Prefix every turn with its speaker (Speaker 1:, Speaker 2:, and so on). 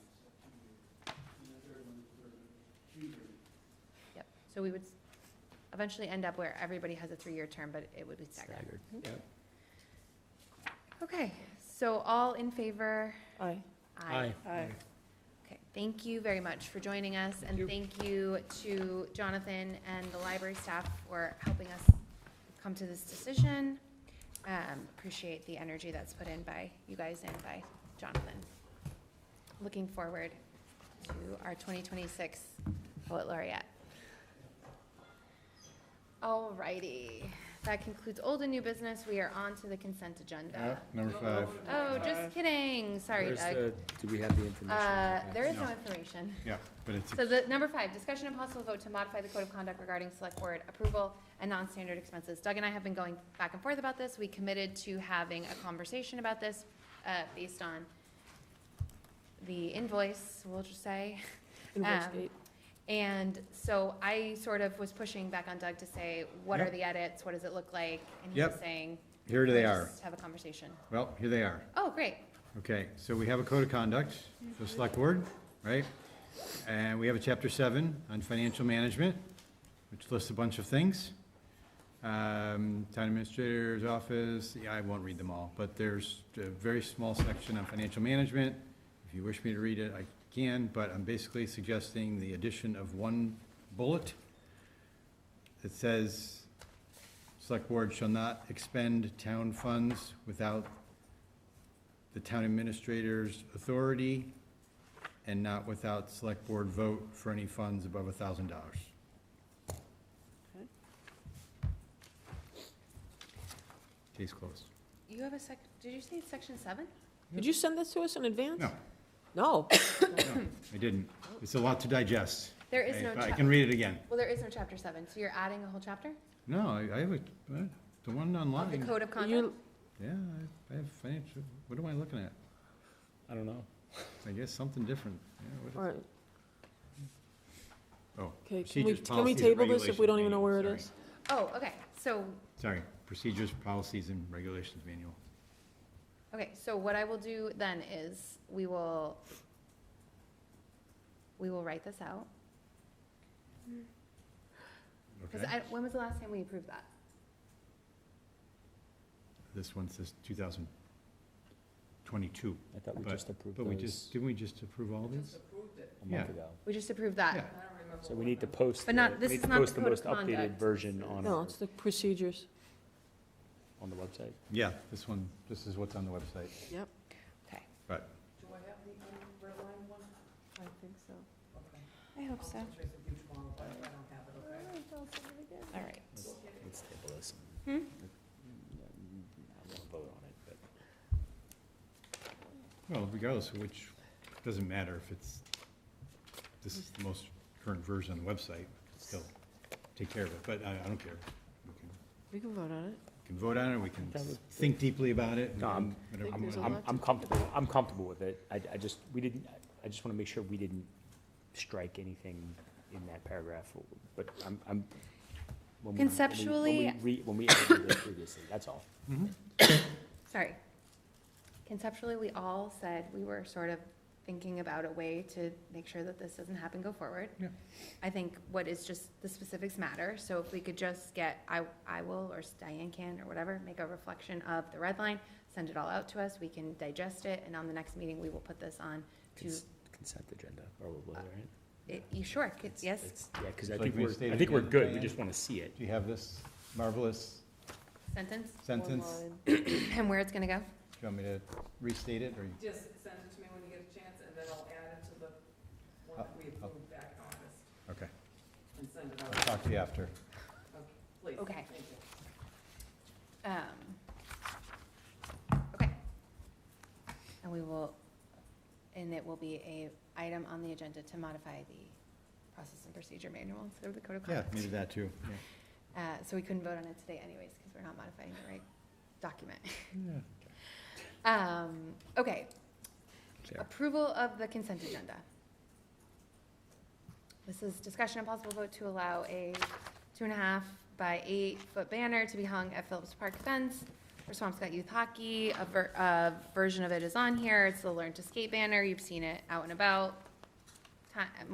Speaker 1: So we would s- eventually end up where everybody has a three-year term, but it would be staggered.
Speaker 2: Staggered.
Speaker 1: Okay, so all in favor?
Speaker 3: Aye.
Speaker 2: Aye.
Speaker 3: Aye.
Speaker 1: Okay, thank you very much for joining us, and thank you to Jonathan and the library staff for helping us come to this decision. Um, Appreciate the energy that's put in by you guys and by Jonathan. Looking forward to our 2026 poet laureate. All righty, that concludes old and new business. We are on to the consent agenda.
Speaker 4: Number five.
Speaker 1: Oh, just kidding, sorry,
Speaker 2: Where's
Speaker 1: Doug.
Speaker 2: the, do we have the information?
Speaker 1: Uh, there is no
Speaker 4: No.
Speaker 1: information.
Speaker 4: Yeah, but it's,
Speaker 1: So the, number five, discussion and possible vote to modify the code of conduct regarding select board approval and non-standard expenses. Doug and I have been going back and forth about this. We committed to having a conversation about this, uh, based on the invoice, we'll just say.
Speaker 3: Invoice
Speaker 1: Um,
Speaker 3: eight.
Speaker 1: And so I sort of was pushing back on Doug to say, what are
Speaker 4: Yep.
Speaker 1: the edits? What does it look like? And he was
Speaker 4: Yep.
Speaker 1: saying,
Speaker 4: here they
Speaker 1: "Let's
Speaker 4: are.
Speaker 1: just Have a conversation.
Speaker 4: Well, here they are.
Speaker 1: Oh, great.
Speaker 4: Okay, so we have a code of conduct, the select board, right? And we have a chapter seven on financial management, which lists a bunch of things. Um, Town administrator's office, yeah, I won't read them all, but there's a very small section on financial management. If you wish me to read it, I can, but I'm basically suggesting the addition of one bullet that says, select board shall not expend town funds without the town administrator's authority and not without select board vote for any funds above a thousand dollars. Case closed.
Speaker 1: You have a sec, did you say it's section seven?
Speaker 3: Did you send this to us in advance?
Speaker 4: No,
Speaker 3: No.
Speaker 4: no, I didn't. It's a lot to digest.
Speaker 1: There is
Speaker 4: I-
Speaker 1: no
Speaker 4: but I
Speaker 1: chap-
Speaker 4: can read it again.
Speaker 1: Well, there is no chapter seven, so you're adding a whole chapter
Speaker 4: No, I I have a, uh, the one
Speaker 1: of the
Speaker 4: online.
Speaker 1: code of conduct?
Speaker 3: You,
Speaker 4: Yeah, I- I have financial, what am I looking at?
Speaker 2: I don't know.
Speaker 4: I guess something different. Yeah, what is-
Speaker 3: all right,
Speaker 4: Oh,
Speaker 3: okay. Can we,
Speaker 4: procedures,
Speaker 3: can we
Speaker 4: policies,
Speaker 3: table this if we
Speaker 4: regulations
Speaker 3: don't even know
Speaker 4: manual,
Speaker 3: where it
Speaker 4: sorry.
Speaker 3: is?
Speaker 1: Oh, okay, so,
Speaker 4: Sorry, procedures, policies, and regulations manual.
Speaker 1: okay, so what I will do then is, we will, we will write this out. Because
Speaker 4: Okay.
Speaker 1: I, when was the last time we approved that?
Speaker 4: This one says 2022,
Speaker 2: I thought we
Speaker 4: But-
Speaker 2: just approved
Speaker 4: but we just,
Speaker 2: those
Speaker 4: didn't we just approve all these?
Speaker 2: a month
Speaker 4: yeah.
Speaker 2: ago.
Speaker 1: We just approved that.
Speaker 4: Yeah.
Speaker 2: So we need to post.
Speaker 1: But not-
Speaker 2: the- we
Speaker 1: this
Speaker 2: need
Speaker 1: is
Speaker 2: to
Speaker 1: not the
Speaker 2: post
Speaker 1: code of
Speaker 2: most updated
Speaker 1: conduct.
Speaker 2: Version on,
Speaker 3: No,
Speaker 2: our-
Speaker 3: it's the procedures.
Speaker 2: on the website.
Speaker 4: Yeah, this one, this is what's on the website,
Speaker 3: Yep.
Speaker 1: Okay,
Speaker 4: but,
Speaker 3: I think so.
Speaker 1: I hope so. All right.
Speaker 2: Let's let's table this.
Speaker 1: Hmm?
Speaker 2: I won't vote on it, but
Speaker 4: well, regardless of which, doesn't matter if it's, this is the most current version on the website, we can still take care of it, but I, I don't care. We can-
Speaker 3: We can vote on it.
Speaker 4: We can vote on it, we can
Speaker 2: That would-
Speaker 4: think deeply about it. we
Speaker 2: No, I'm-
Speaker 4: can whatever
Speaker 3: Think
Speaker 4: we
Speaker 3: there's a
Speaker 4: want.
Speaker 2: I'm,
Speaker 3: lot to-
Speaker 2: I'm comfortable, I'm comfortable with it. I, I just, we didn't, I just want to make sure we didn't strike anything in that paragraph, but I'm, I'm. when we- when we- when we
Speaker 1: Conceptually-
Speaker 2: re- When we edited it previously, that's all.
Speaker 1: Sorry. Conceptually, we all said we were sort of thinking about a way to make sure that this doesn't happen go forward.
Speaker 4: Yeah.
Speaker 1: I think what is just, the specifics matter, so if we could just get, I, I will, or Diane can, or whatever, make a reflection of the red line, send it all out to us, we can digest it, and on the next meeting, we will put this on to,
Speaker 2: Cons- Consent agenda, or what, right?
Speaker 1: it- you sure, c-
Speaker 2: It's-
Speaker 1: yes,
Speaker 2: it's- Yeah, because I
Speaker 4: Like
Speaker 2: think
Speaker 4: we
Speaker 2: we're,
Speaker 4: stated
Speaker 2: I think we're
Speaker 4: again,
Speaker 2: good, we
Speaker 4: Diane.
Speaker 2: just want to see it.
Speaker 4: Do you have this marvelous
Speaker 1: sentence,
Speaker 4: sentence?
Speaker 3: Online.
Speaker 1: and where it's gonna go?
Speaker 4: Do you want me to restate it, or you-
Speaker 5: Just send it to me when you get a chance, and then I'll add it to the one that
Speaker 4: Uh,
Speaker 5: we approved back in August,
Speaker 4: okay,
Speaker 5: and send it
Speaker 4: I'll
Speaker 5: out,
Speaker 4: talk to you after.
Speaker 5: please.
Speaker 1: Okay.
Speaker 5: Thank you.
Speaker 1: Um, okay. And we will, and it will be a item on the agenda to modify the process and procedure manual instead of the code of
Speaker 4: Yeah,
Speaker 1: conduct.
Speaker 4: maybe that too, yeah.
Speaker 1: Uh, so we couldn't vote on it today anyways, because we're not modifying the right document. Um, okay.
Speaker 2: Fair.
Speaker 1: Approval of the consent agenda. This is discussion and possible vote to allow a two and a half by eight foot banner to be hung at Phillips Park fence for Swampscott Youth Hockey. A ver- a version of it is on here. It's the Learn to Skate banner. You've seen it out and about. Ti-